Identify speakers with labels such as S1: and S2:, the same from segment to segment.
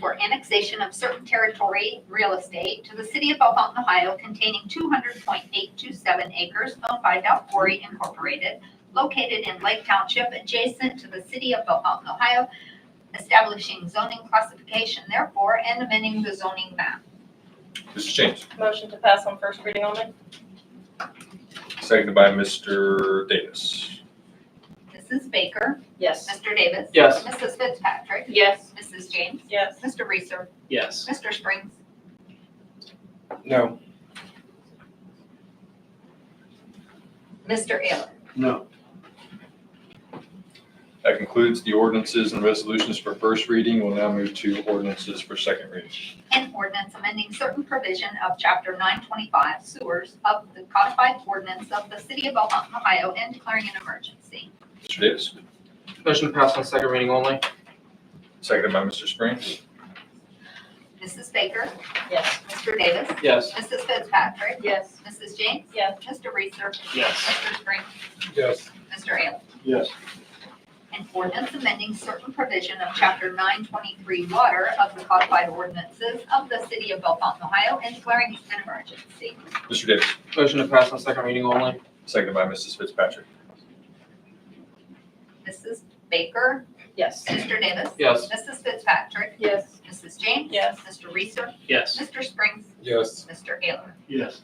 S1: for annexation of certain territory, real estate, to the city of Belmont, Ohio containing two hundred point eight two seven acres owned by Delcori Incorporated, located in Lake Township adjacent to the city of Belmont, Ohio, establishing zoning classification therefore and amending the zoning map.
S2: Mr. James,
S3: Motion to pass on first reading only?
S2: seconded by Mr. Davis.
S1: Mrs. Baker,
S3: Yes.
S1: Mr. Davis.
S4: Yes.
S1: Mrs. Fitzpatrick,
S3: Yes.
S1: Mrs. James,
S3: Yes.
S1: Mr. Reeser,
S4: Yes.
S1: Mr. Springs.
S4: No.
S1: Mr. Ailer.
S4: No.
S2: That concludes the ordinances and resolutions for first reading. We'll now move to ordinances for second reading.
S1: An ordinance amending certain provision of Chapter 925 sewers of the codified ordinance of the City of Belmont, Ohio, and declaring an emergency.
S2: Mr. Davis,
S4: Motion to pass on second reading only?
S2: seconded by Mr. Springs.
S1: Mrs. Baker,
S3: Yes.
S1: Mr. Davis,
S4: Yes.
S1: Mrs. Fitzpatrick,
S3: Yes.
S1: Mrs. James,
S3: Yes.
S1: Mr. Reeser,
S4: Yes.
S1: Mr. Springs,
S4: Yes.
S1: Mr. Ailer.
S4: Yes.
S1: An ordinance amending certain provision of Chapter 923 water of the codified ordinances of the City of Belmont, Ohio, and declaring an emergency.
S2: Mr. Davis,
S4: Motion to pass on second reading only?
S2: seconded by Mrs. Fitzpatrick.
S1: Mrs. Baker,
S3: Yes.
S1: Mr. Davis,
S4: Yes.
S1: Mrs. Fitzpatrick,
S3: Yes.
S1: Mrs. James,
S3: Yes.
S1: Mr. Reeser,
S4: Yes.
S1: Mr. Springs,
S2: Yes.
S1: Mr. Ailer.
S4: Yes.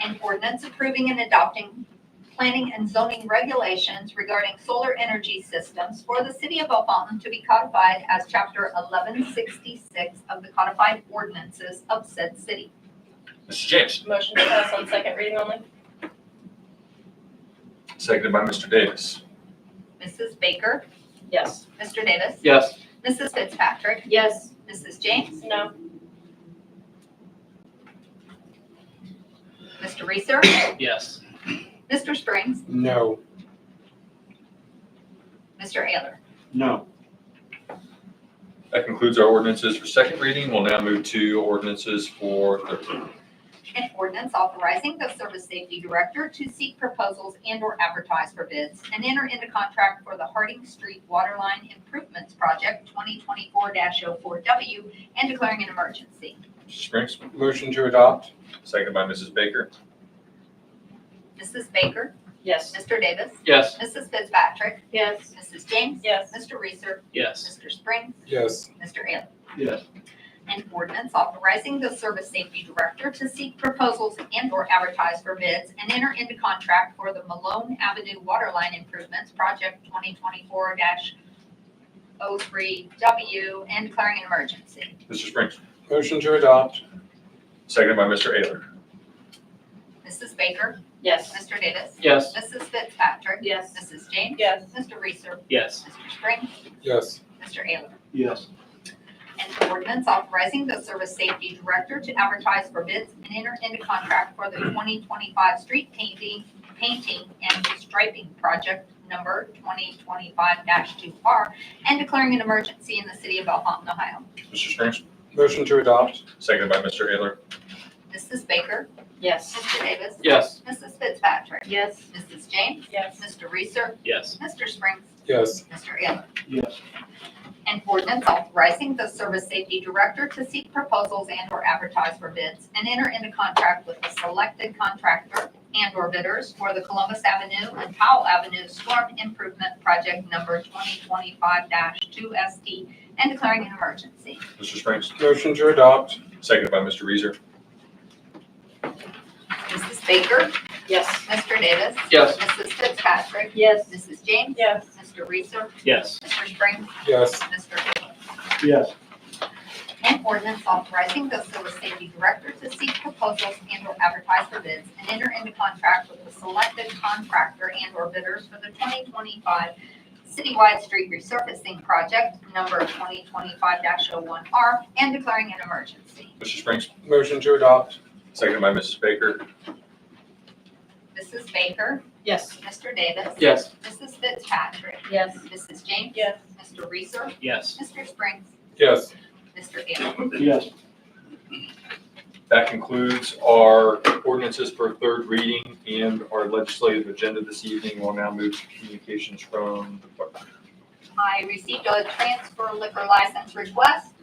S1: An ordinance approving and adopting planning and zoning regulations regarding solar energy systems for the city of Belle Fountain to be codified as chapter eleven sixty-six of the codified ordinances of said city.
S2: Mr. James,
S3: Motion to pass on second reading only?
S2: seconded by Mr. Davis.
S1: Mrs. Baker,
S3: Yes.
S1: Mr. Davis,
S4: Yes.
S1: Mrs. Fitzpatrick,
S3: Yes.
S1: Mrs. James,
S3: No.
S1: Mr. Reeser,
S4: Yes.
S1: Mr. Springs,
S4: No.
S1: Mr. Ailer.
S4: No.
S2: That concludes our ordinances for second reading. We'll now move to ordinances for third reading.
S1: An ordinance authorizing the Service Safety Director to seek proposals and/or advertise for bids and enter into contract for the Harding Street Waterline Improvements Project 2024-04W and declaring an emergency.
S2: Mr. Springs,
S4: Motion to adopt?
S2: seconded by Mrs. Baker.
S1: Mrs. Baker,
S3: Yes.
S1: Mr. Davis,
S4: Yes.
S1: Mrs. Fitzpatrick,
S3: Yes.
S1: Mrs. James,
S3: Yes.
S1: Mr. Reeser,
S4: Yes.
S1: Mr. Springs,
S4: Yes.
S1: Mr. Ailer.
S4: Yes.
S1: An ordinance authorizing the Service Safety Director to seek proposals and/or advertise for bids and enter into contract for the Malone Avenue Waterline Improvements Project 2024-03W and declaring an emergency.
S2: Mr. Springs,
S4: Motion to adopt?
S2: seconded by Mr. Ayler.
S1: Mrs. Baker,
S3: Yes.
S1: Mr. Davis,
S4: Yes.
S1: Mrs. Fitzpatrick,
S3: Yes.
S1: Mrs. James,
S3: Yes.
S1: Mr. Reeser,
S4: Yes.
S1: Mr. Springs,
S4: Yes.
S1: Mr. Ailer.
S4: Yes.
S1: An ordinance authorizing the Service Safety Director to advertise for bids and enter into contract for the 2025 street painting, painting and striping project number 2025-2R and declaring an emergency in the city of Belmont, Ohio.
S2: Mr. Springs,
S4: Motion to adopt?
S2: seconded by Mr. Ayler.
S1: Mrs. Baker,
S3: Yes.
S1: Mr. Davis,
S4: Yes.
S1: Mrs. Fitzpatrick,
S3: Yes.
S1: Mrs. James,
S3: Yes.
S1: Mr. Reeser,
S4: Yes.
S1: Mr. Springs,
S4: Yes.
S1: Mr. Ailer.
S4: Yes.
S1: An ordinance authorizing the Service Safety Director to seek proposals and/or advertise for bids and enter into contract with the selected contractor and/or bidders for the Columbus Avenue and Powell Avenue Storm Improvement Project Number 2025-2ST and declaring an emergency.
S2: Mr. Springs,
S4: Motion to adopt?
S2: seconded by Mr. Reeser.
S1: Mrs. Baker,
S3: Yes.
S1: Mr. Davis.
S4: Yes.
S1: Mrs. Fitzpatrick,
S3: Yes.
S1: Mrs. James.
S3: Yes.
S1: Mr. Reeser,
S4: Yes.
S1: Mr. Springs,
S4: Yes.
S1: Mr. Ailer.
S4: Yes.
S1: An ordinance authorizing the Civil Safety Director to seek proposals and/or advertise for bids and enter into contract with the selected contractor and/or bidders for the 2025 citywide street resurfacing project number 2025-01R and declaring an emergency.
S2: Mr. Springs,
S4: Motion to adopt?
S2: seconded by Mrs. Baker.
S1: Mrs. Baker,
S3: Yes.
S1: Mr. Davis,
S4: Yes.
S1: Mrs. Fitzpatrick,
S3: Yes.
S1: Mrs. James,
S3: Yes.
S1: Mr. Reeser,
S4: Yes.
S1: Mr. Springs,
S4: Yes.
S1: Mr. Ailer.
S4: Yes.
S2: That concludes our ordinances for third reading and our legislative agenda this evening. We'll now move to communications from the clerk.
S1: I received a transfer liquor license request